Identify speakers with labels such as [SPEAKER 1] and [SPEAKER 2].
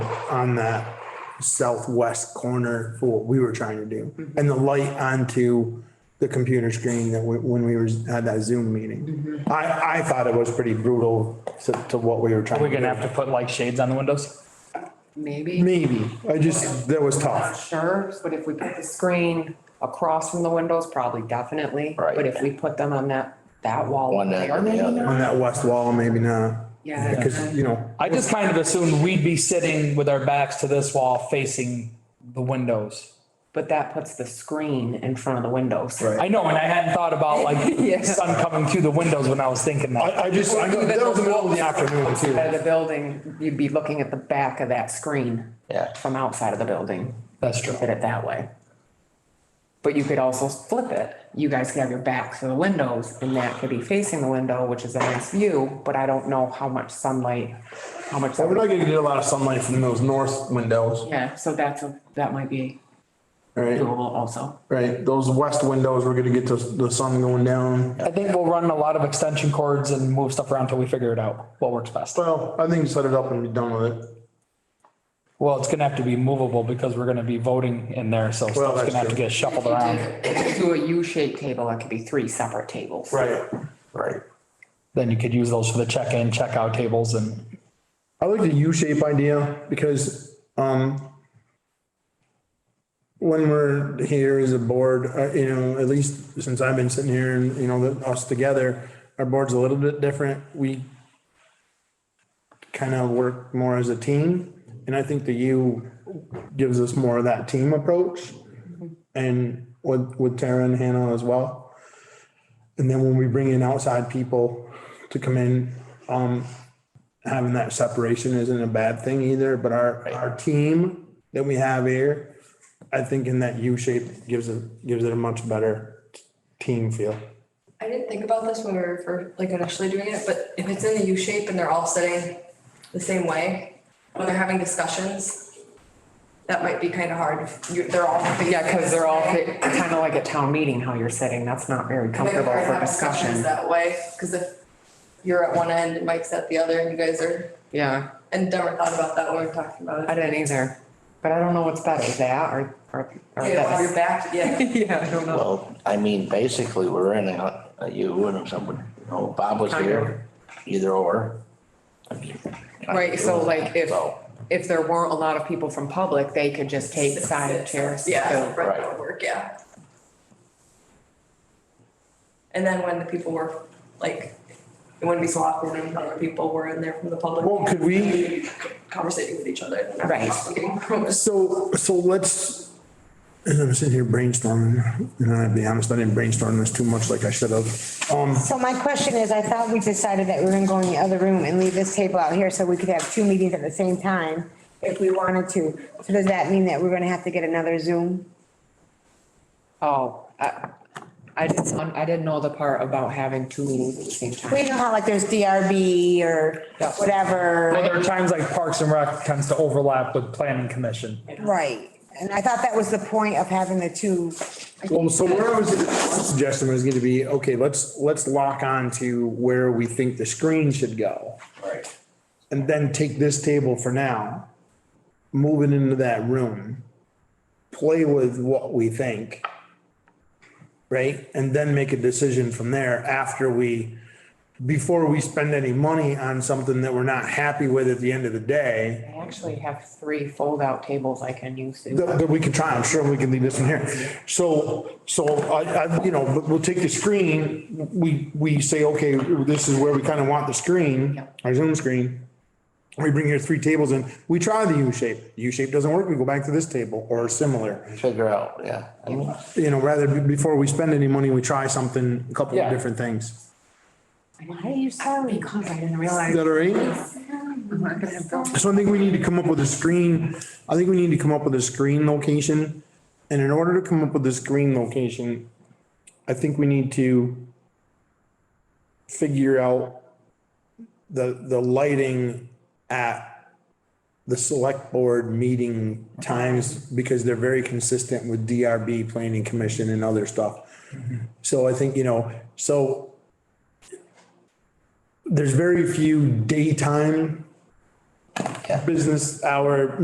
[SPEAKER 1] on the southwest corner for what we were trying to do. And the light onto the computer screen that we- when we were, had that Zoom meeting. I, I thought it was pretty brutal to, to what we were trying to
[SPEAKER 2] We're
[SPEAKER 1] do.
[SPEAKER 2] gonna have to put like shades on the windows?
[SPEAKER 3] Maybe,
[SPEAKER 1] Maybe, I just, that was tough.
[SPEAKER 3] sure, but if we put the screen across from the windows, probably definitely.
[SPEAKER 2] Right.
[SPEAKER 3] But if we put them on that, that wall.
[SPEAKER 4] One end
[SPEAKER 3] there,
[SPEAKER 4] and the
[SPEAKER 3] maybe
[SPEAKER 4] other.
[SPEAKER 3] not.
[SPEAKER 1] On that west wall, maybe not.
[SPEAKER 3] Yeah.
[SPEAKER 1] Because, you know,
[SPEAKER 2] I just kind of assumed we'd be sitting with our backs to this wall facing the windows.
[SPEAKER 3] But that puts the screen in front of the windows.
[SPEAKER 1] Right.
[SPEAKER 2] I know, and I hadn't thought about
[SPEAKER 3] Yeah.
[SPEAKER 2] like sun coming through the windows when I was thinking that.
[SPEAKER 1] I, I just, I know, that was the middle of the afternoon
[SPEAKER 3] Out
[SPEAKER 1] too.
[SPEAKER 3] of the building, you'd be looking at the back of that screen.
[SPEAKER 4] Yeah.
[SPEAKER 3] From outside of the building.
[SPEAKER 2] That's true.
[SPEAKER 3] Put it that way. But you could also flip it. You guys could have your backs to the windows and that could be facing the window, which is a nice view, but I don't know how much sunlight, how much.
[SPEAKER 1] We're not gonna get a lot of sunlight from those north windows,
[SPEAKER 3] Yeah, so that's, a that might be
[SPEAKER 1] right?
[SPEAKER 3] doable also.
[SPEAKER 1] Right, those west windows, we're gonna get the, the sun going down.
[SPEAKER 2] I think we'll run a lot of extension cords and move stuff around till we figure it out, what works best.
[SPEAKER 1] Well, I think set it up and be done with it.
[SPEAKER 2] Well, it's gonna have to be movable because we're gonna be voting in there, so stuff's
[SPEAKER 1] that's
[SPEAKER 2] gonna have to
[SPEAKER 1] true.
[SPEAKER 2] get shuffled around.
[SPEAKER 3] Do a U-shaped table, it could be three separate tables.
[SPEAKER 1] Right.
[SPEAKER 4] Right.
[SPEAKER 2] Then you could use those for the check-in, check-out tables and
[SPEAKER 1] I like the U-shape idea because, um, when we're here as a board, uh, you know, at least since I've been sitting here and, you know, that us together, our board's a little bit different. We kind of work more as a team. And I think the U gives us more of that team approach. And with, with Tara and Hannah as well. And then when we bring in outside people to come in, um, having that separation isn't a bad thing either, but our, our team that we have here, I think in that U shape gives it, gives it a much better team feel.
[SPEAKER 5] I didn't think about this when we were first, like initially doing it, but if it's in the U shape and they're all sitting the same way, when they're having discussions, that might be kind of hard. if you- They're all.
[SPEAKER 3] Yeah, because they're all kind of like at town meeting, how you're sitting, that's not very comfortable for discussion.
[SPEAKER 5] That way, because if you're at one end and Mike's at the other and you guys are,
[SPEAKER 3] Yeah,
[SPEAKER 5] and never thought about that when we were talking about
[SPEAKER 3] I
[SPEAKER 5] it.
[SPEAKER 3] didn't either, but I don't know what's better, that or, or, or
[SPEAKER 5] Yeah, while you're
[SPEAKER 3] this.
[SPEAKER 5] back, yeah.
[SPEAKER 3] Yeah, I don't know.
[SPEAKER 4] Well, I mean, basically, we're in a, a you and someone, you know, Bob was here, either or. I mean, I-
[SPEAKER 3] Right, so like if,
[SPEAKER 4] So,
[SPEAKER 3] if there weren't a lot of people from public, they could just take side chairs.
[SPEAKER 5] Yeah,
[SPEAKER 3] so-
[SPEAKER 5] right,
[SPEAKER 4] Right.
[SPEAKER 5] that'll work, yeah. And then when the people were, like, it wouldn't be so awkward when other people were in there from the public.
[SPEAKER 1] Well, could we-
[SPEAKER 5] Conversating with each other.
[SPEAKER 3] Right.
[SPEAKER 1] So, so let's, and I'm sitting here brainstorming, and I'll be honest, I didn't brainstorm this too much like I should have. Um,
[SPEAKER 6] So my question is, I thought we decided that we were gonna go in the other room and leave this table out here so we could have two meetings at the same time if we wanted to. So does that mean that we're gonna have to get another Zoom?
[SPEAKER 3] Oh, I, I didn't, I didn't know the part about having two meetings at the same
[SPEAKER 6] We
[SPEAKER 3] time.
[SPEAKER 6] know how like there's DRB or
[SPEAKER 3] Yeah.
[SPEAKER 2] Well,
[SPEAKER 6] whatever,
[SPEAKER 2] there are times like Parks and Rec tends to overlap with planning commission.
[SPEAKER 6] right? And I thought that was the point of having the two,
[SPEAKER 1] Well, so where I was suggesting was gonna be, okay, let's, let's lock on to where we think the screen should go.
[SPEAKER 4] right.
[SPEAKER 1] and then take this table for now, move it into that room, play with what we think, right? And then make a decision from there after we, before we spend any money on something that we're not happy with at the end of the day,
[SPEAKER 3] I actually have three fold-out tables I can use. to-
[SPEAKER 1] that, that we can try, I'm sure we can leave this one here. So, so I, I, you know, but we'll take the screen, we, we say, okay, this is where we kind of want the screen,
[SPEAKER 3] Yeah.
[SPEAKER 1] our Zoom screen. We bring your three tables in, we try the U shape, U shape doesn't work, we go back to this table or similar.
[SPEAKER 4] Figure out, yeah. I mean,
[SPEAKER 1] You know, rather, be- before we spend any money, we try something, a couple
[SPEAKER 2] Yeah.
[SPEAKER 1] of different things.
[SPEAKER 6] why are you sorry?
[SPEAKER 3] Because I didn't realize.
[SPEAKER 1] Is that all right? So I think we need to come up with a screen, I think we need to come up with a screen location. And in order to come up with a screen location, I think we need to figure out the, the lighting at the select board meeting times because they're very consistent with DRB, planning commission and other stuff. So I think, you know, so there's very few daytime business hour